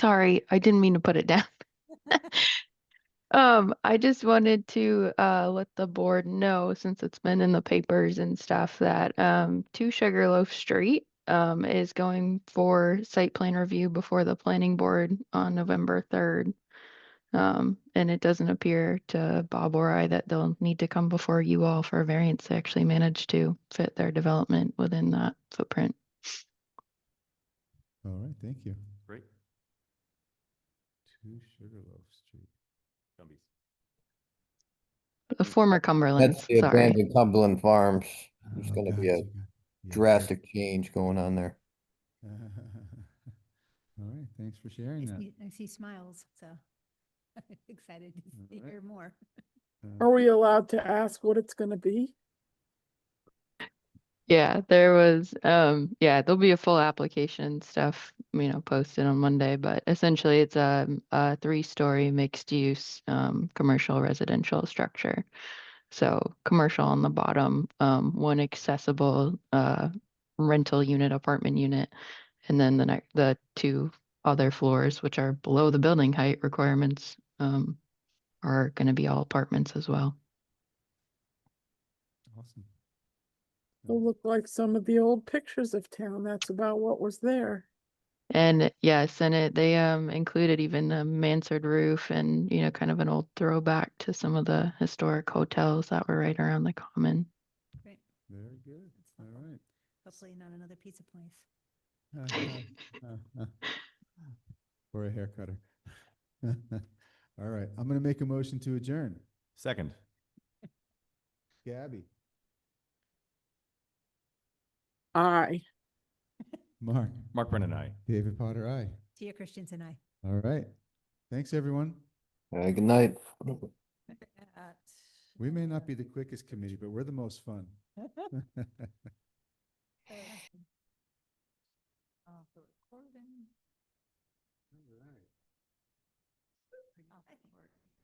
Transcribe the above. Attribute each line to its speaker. Speaker 1: Sorry, I didn't mean to put it down. Um, I just wanted to uh let the board know, since it's been in the papers and stuff, that um two Sugarloaf Street um is going for site plan review before the planning board on November third. Um, and it doesn't appear to Bob or I that they'll need to come before you all for a variance to actually manage to fit their development within that footprint.
Speaker 2: All right, thank you.
Speaker 3: Great.
Speaker 2: Two Sugarloaf Street.
Speaker 3: Gumby's.
Speaker 1: The former Cumberland,
Speaker 4: Mm. That's the
Speaker 1: sorry.
Speaker 4: abandoned Cumberland Farms. There's
Speaker 2: Oh,
Speaker 4: gonna be a
Speaker 2: gotcha, got- yeah,
Speaker 4: drastic change going on there.
Speaker 2: yeah. All right, thanks for sharing
Speaker 5: I
Speaker 2: that.
Speaker 5: see, I see smiles, so excited to see-
Speaker 2: Alright.
Speaker 5: hear more.
Speaker 2: Uh,
Speaker 6: Are we allowed to ask what it's gonna be?
Speaker 1: Yeah, there was, um, yeah, there'll be a full application stuff, you know, posted on Monday, but essentially it's a, a three-story mixed-use, um, commercial residential structure. So commercial on the bottom, um, one accessible, uh, rental unit, apartment unit. And then the next, the two other floors, which are below the building height requirements, um, are gonna be all apartments as well.
Speaker 2: Awesome.
Speaker 6: It'll look like some of the old pictures of town. That's about what was there.
Speaker 1: And yes, and it they um included even the mansard roof and you know kind of an old throwback to some of the historic hotels that were right around the common.
Speaker 5: Great.
Speaker 2: Very good,
Speaker 5: That's
Speaker 2: all
Speaker 5: helpful.
Speaker 2: right.
Speaker 5: Hopefully not another pizza place.
Speaker 2: Or a hair cutter. All right, I'm gonna make a motion to adjourn.
Speaker 3: Second.
Speaker 2: Gabby,
Speaker 6: Aye.
Speaker 2: Mark,
Speaker 3: Mark Brennan, I.
Speaker 2: David Potter, aye.
Speaker 5: Tia Christians and I.
Speaker 2: All right, thanks, everyone.
Speaker 4: Uh, good night.
Speaker 5: At-
Speaker 2: We may not be the quickest committee, but we're the most fun.
Speaker 5: uh, off the recording. Off the recording.